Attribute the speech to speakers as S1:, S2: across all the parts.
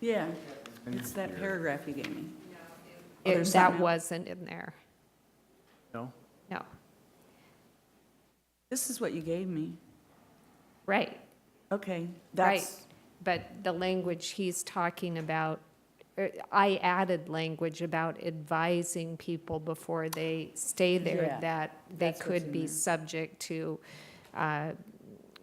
S1: Yeah, it's that paragraph you gave me. Oh,
S2: It-
S1: there's
S2: That
S1: something else.
S2: wasn't in there,
S3: No?
S2: no,
S1: This is what you gave me.
S2: right.
S1: Okay,
S2: Right,
S1: that's,
S2: but the language he's talking about, er, I added language about advising people before they stay there
S1: Yeah,
S2: that they
S1: that's what's
S2: could
S1: in
S2: be
S1: there.
S2: subject to, uh,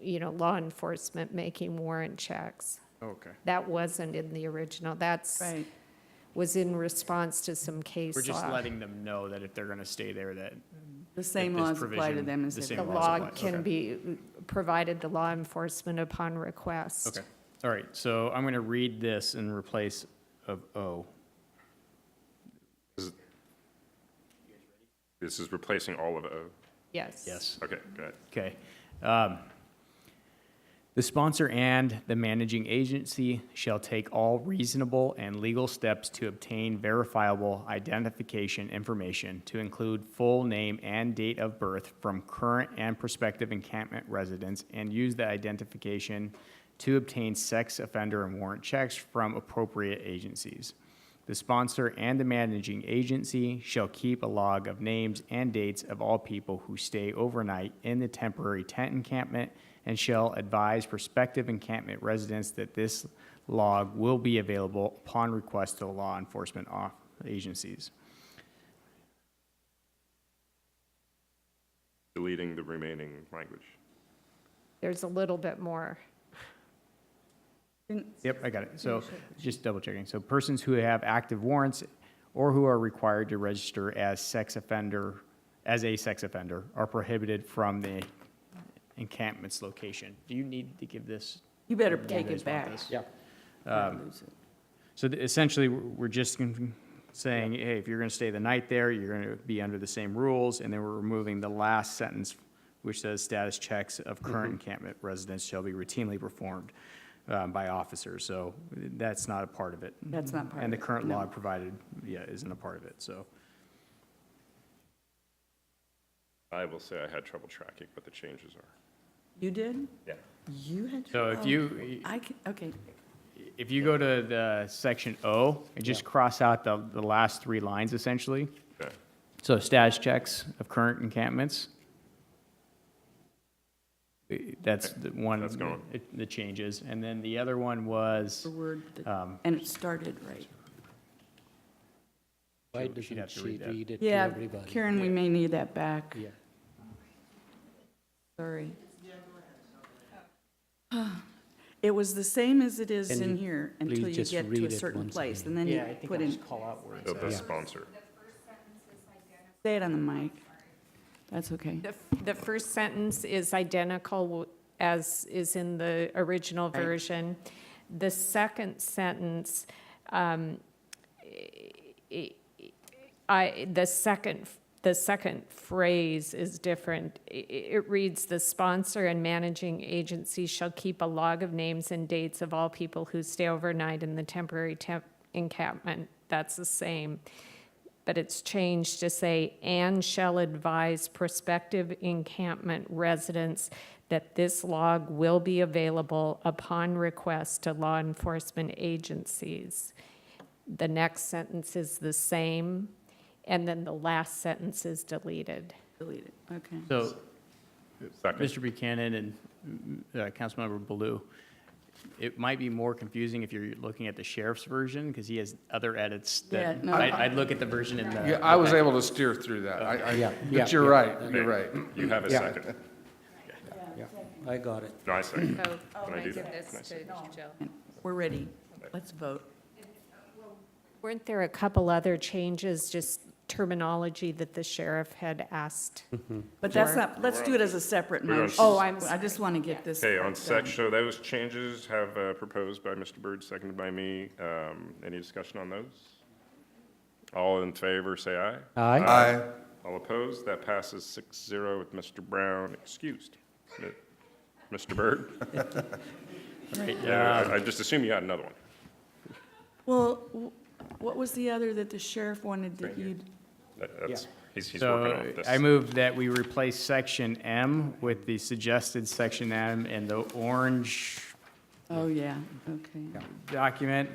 S2: you know, law enforcement making warrant checks.
S3: Oh, Okay.
S2: That wasn't in the original, that's,
S1: right,
S2: was in response to some case
S3: We're just
S2: law.
S3: letting them know that if they're going to stay there, that,
S1: the same
S3: this
S1: laws apply to
S3: provision-
S1: them as
S3: the
S2: The
S1: everyone.
S3: same- laws
S2: law
S3: apply,
S2: can
S3: okay.
S2: be provided to law enforcement upon request.
S3: okay. All right, so I'm going to read this in replace of O.
S4: This is replacing all of O.
S2: Yes.
S4: Okay, good.
S3: Okay. Um, The sponsor and the managing agency shall take all reasonable and legal steps to obtain verifiable identification information to include full name and date of birth from current and prospective encampment residents and use the identification to obtain sex offender and warrant checks from appropriate agencies. The sponsor and the managing agency shall keep a log of names and dates of all people who stay overnight in the temporary tent encampment and shall advise prospective encampment residents that this log will be available upon request to law enforcement off- agencies.
S4: Deleting the remaining language.
S2: There's a little bit more.
S1: Didn't-
S3: Yep, I got it. So just double checking. So persons who have active warrants or who are required to register as sex offender, as a sex offender, are prohibited from the encampment's location. Do you need to give this?
S1: You better
S3: you
S1: take
S3: guys
S1: it
S3: want
S1: back.
S3: this?
S5: Yeah.
S1: Or lose it.
S3: So th- essentially, we're we're just con- saying, hey, if you're going to stay the night there, you're going to be under the same rules. And then we're removing the last sentence, which says status checks of
S1: Mm-hmm.
S3: current encampment residents shall be routinely performed um, by officers. So that's not a part of it.
S1: That's not part
S3: And the
S1: of it,
S3: current
S1: no.
S3: log provided, yeah, isn't a part of it, so.
S4: I will say I had trouble tracking what the changes are.
S1: You did?
S4: Yeah.
S1: You had.
S3: So if
S1: oh,
S3: you,
S1: I can, okay,
S3: if you go to the section O, and just cross out the, the last three lines essentially.
S4: Okay.
S3: So status checks of current encampments. Uh, That's the one,
S4: That's gone.
S3: it- the changes. And then the other one was,
S1: the word, that-
S3: Um,
S1: and it started right.
S5: Why
S3: She'd- she'd
S5: doesn't
S3: have to
S5: she
S3: read that.
S5: read it to
S1: Yeah,
S5: everybody?
S1: Karen, we may need that back,
S5: Yeah.
S1: sorry. It was the same as it is
S5: Can
S1: in
S5: you
S1: here until
S5: please
S1: you
S5: just
S1: get
S5: read
S1: to a
S5: it
S1: certain
S5: once
S1: place,
S5: again?
S1: and then you put in,
S3: call out words.
S4: So the sponsor.
S1: say it on the mic. That's okay.
S2: The, f- the first sentence is identical w- as is in the original
S1: Right.
S2: version. The second sentence, um, i- i- I, the second, f- the second phrase is different. I- i- It reads, "The sponsor and managing agency shall keep a log of names and dates of all people who stay overnight in the temporary temp encampment." That's the same but it's changed to say, "and shall advise prospective encampment residents that this log will be available upon request to law enforcement agencies." The next sentence is the same, and then the last sentence is deleted.
S1: Delete it, okay.
S3: So,
S4: Second.
S3: Mr. Buchanan and mm, uh, Councilmember Baloo, it might be more confusing if you're looking at the sheriff's version, because he has other edits that,
S1: Yeah, no,
S3: I-
S1: I-
S3: I'd look at the version in the.
S6: Yeah, I was able to steer through that. I,
S5: Yeah,
S6: I,
S5: yeah,
S6: but you're
S5: yeah.
S6: right,
S4: Okay.
S6: you're right.
S4: You have a
S5: Yeah.
S4: second.
S5: Yeah, I got it.
S4: No, I second.
S2: Oh,
S4: Can I do that? Can I second?
S1: We're ready. Let's vote.
S2: Weren't there a couple other changes, just terminology that the sheriff had asked?
S1: But that's
S2: Sure.
S1: not, let's do it as a separate
S4: We're on-
S1: motion.
S2: Oh, I'm
S1: I just want to get this.
S4: Okay, on
S1: done.
S4: section, so those changes have uh, proposed by Mr. Byrd, seconded by me. Um, Any discussion on those? All in favor, say aye.
S5: Aye.
S6: I,
S4: All opposed? That passes six zero with Mr. Brown excused. Mi- Mr. Byrd? Yeah, I I just assume you had another one.
S1: Well, w- what was the other that the sheriff wanted that you,
S4: That- That's, he's, he's working
S3: So
S4: off this.
S3: I move that we replace section M with the suggested section M in the orange
S1: oh, yeah, okay.
S3: document